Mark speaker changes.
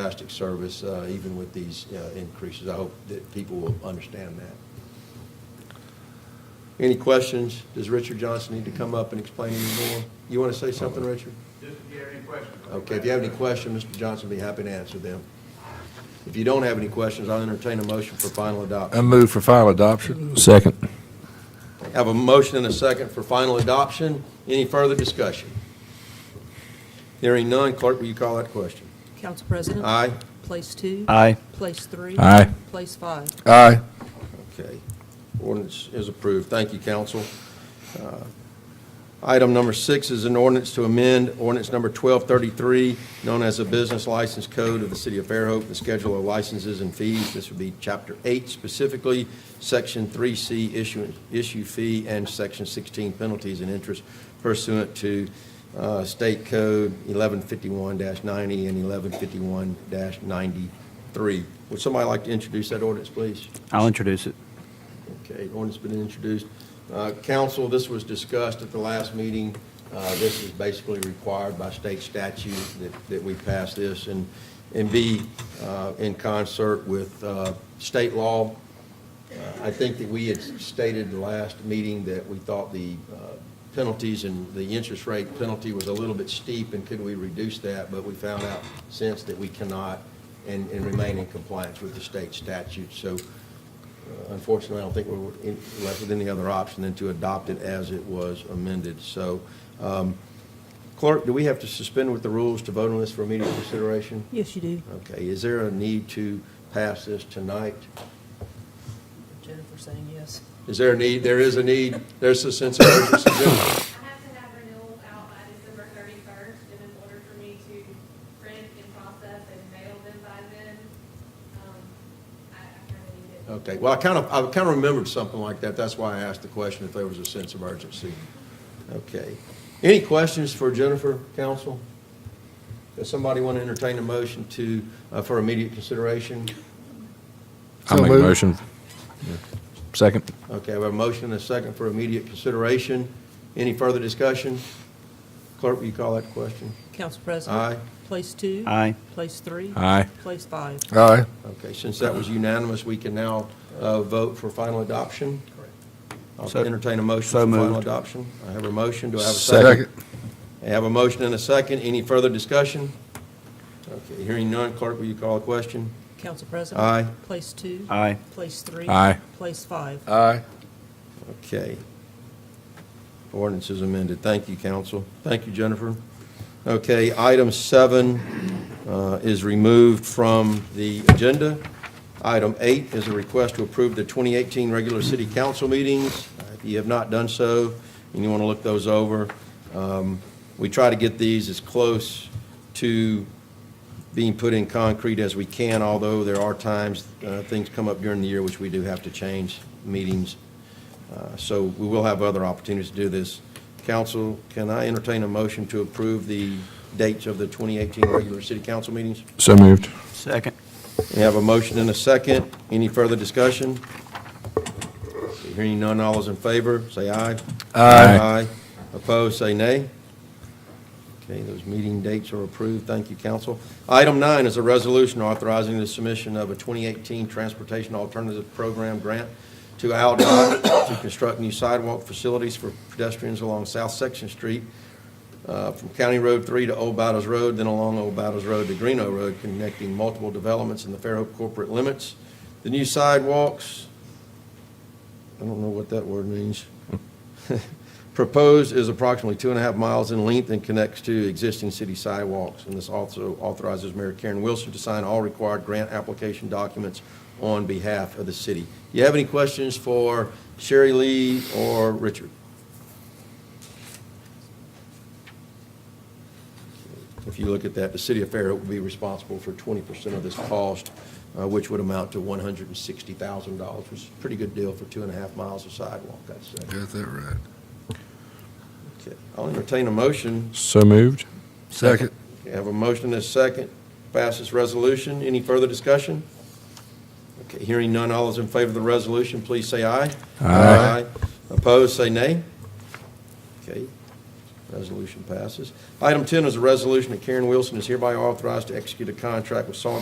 Speaker 1: fantastic service, uh, even with these uh, increases. I hope that people will understand that. Any questions? Does Richard Johnson need to come up and explain any more? You want to say something, Richard?
Speaker 2: Just if you have any questions.
Speaker 1: Okay, if you have any questions, Mr. Johnson will be happy to answer them. If you don't have any questions, I'll entertain a motion for final
Speaker 3: I
Speaker 1: adoption.
Speaker 3: move for final adoption. Second.
Speaker 1: Have a motion and a second for final adoption. Any further discussion? Hearing none, clerk, will you call that question?
Speaker 4: Council President?
Speaker 1: Aye?
Speaker 4: Place two?
Speaker 5: Aye.
Speaker 4: Place three?
Speaker 3: Aye.
Speaker 4: Place five?
Speaker 3: Aye.
Speaker 1: Okay. Ordinance is approved. Thank you, council. Uh, Item number six is an ordinance to amend ordinance number 1233, known as the Business License Code of the City of Fairhope, the Schedule of Licenses and Fees. This would be Chapter 8 specifically, Section 3C Issue issue Fee, and Section 16 Penalties and Interest pursuant to uh, State Code 1151-90 and 1151-93. Would somebody like to introduce that ordinance, please?
Speaker 5: I'll introduce it.
Speaker 1: Okay, ordinance been introduced. Uh, Council, this was discussed at the last meeting. Uh, This is basically required by state statute that, that we pass this and, and be uh, in concert with uh, state law. Uh, I think that we had stated the last meeting that we thought the uh, penalties and the interest rate penalty was a little bit steep, and could we reduce that? But we found out since that we cannot and, and remain in compliance with the state statute. So Unfortunately, I don't think we're in- left with any other option than to adopt it as it was amended. So, um, clerk, do we have to suspend with the rules to vote on this for immediate consideration?
Speaker 4: Yes, you do.
Speaker 1: Okay, is there a need to pass this tonight?
Speaker 4: Jennifer saying yes.
Speaker 1: Is there a need? There is a need. There's a sense of urgency. gentlemen.
Speaker 6: I have to have renewals out by December thirty-first, and in order for me to print and process and mail them by then, um, I, I kind of need it.
Speaker 1: Okay, well, I kind of, I kind of remembered something like that. That's why I asked the question if there was a sense of urgency. Okay. Any questions for Jennifer, counsel? Does somebody want to entertain a motion to, uh, for immediate consideration?
Speaker 3: I make a motion. Second.
Speaker 1: Okay, we have a motion and a second for immediate consideration. Any further discussion? Clerk, will you call that question?
Speaker 4: Council President?
Speaker 1: Aye.
Speaker 4: Place two?
Speaker 5: Aye.
Speaker 4: Place three?
Speaker 3: Aye.
Speaker 4: Place five?
Speaker 3: Aye.
Speaker 1: Okay, since that was unanimous, we can now uh, vote for final adoption? Correct.
Speaker 5: So-
Speaker 1: I'll entertain a motion
Speaker 5: so
Speaker 1: for final
Speaker 5: moved.
Speaker 1: adoption. I have a motion, do I have a second? I have a motion and a second. Any further discussion? Okay, hearing none, clerk, will you call the question?
Speaker 4: Council President?
Speaker 1: Aye.
Speaker 4: Place two?
Speaker 5: Aye.
Speaker 4: Place three?
Speaker 3: Aye.
Speaker 4: Place five?
Speaker 3: Aye.
Speaker 1: Okay. Ordinance is amended. Thank you, council. Thank you, Jennifer. Okay, item seven uh, is removed from the agenda. Item eight is a request to approve the 2018 regular city council meetings. If you have not done so, and you want to look those over, um, we try to get these as close to being put in concrete as we can, although there are times, uh, things come up during the year which we do have to change meetings. Uh, So we will have other opportunities to do this. Council, can I entertain a motion to approve the dates of the 2018 regular city council meetings?
Speaker 3: So moved.
Speaker 5: Second.
Speaker 1: We have a motion and a second. Any further discussion? Hearing none, all those in favor, say aye.
Speaker 3: Aye.
Speaker 1: Opposed, say nay. Okay, those meeting dates are approved. Thank you, council. Item nine is a resolution authorizing the submission of a 2018 Transportation Alternative Program grant to AlDOT to construct new sidewalk facilities for pedestrians along South Section Street uh, from County Road 3 to Old Bowdoes Road, then along Old Bowdoes Road to Greeno Road, connecting multiple developments in the Fairhope corporate limits. The new sidewalks, I don't know what that word means. Proposed is approximately two and a half miles in length and connects to existing city sidewalks. And this also authorizes Mayor Karen Wilson to sign all required grant application documents on behalf of the city. Do you have any questions for Sherry Lee or Richard? If you look at that, the city of Fairhope would be responsible for 20% of this cost, uh, which would amount to $160,000, which is a pretty good deal for two and a half miles of sidewalk, I'd say.
Speaker 3: Got that right.
Speaker 1: Okay. I'll entertain a motion.
Speaker 3: So moved. Second.
Speaker 1: Okay, I have a motion and a second. Pass this resolution. Any further discussion? Okay, hearing none, all those in favor of the resolution, please say aye.
Speaker 3: Aye.
Speaker 1: Opposed, say nay. Okay. Resolution passes. Item 10 is a resolution that Karen Wilson is hereby authorized to execute a contract with Salt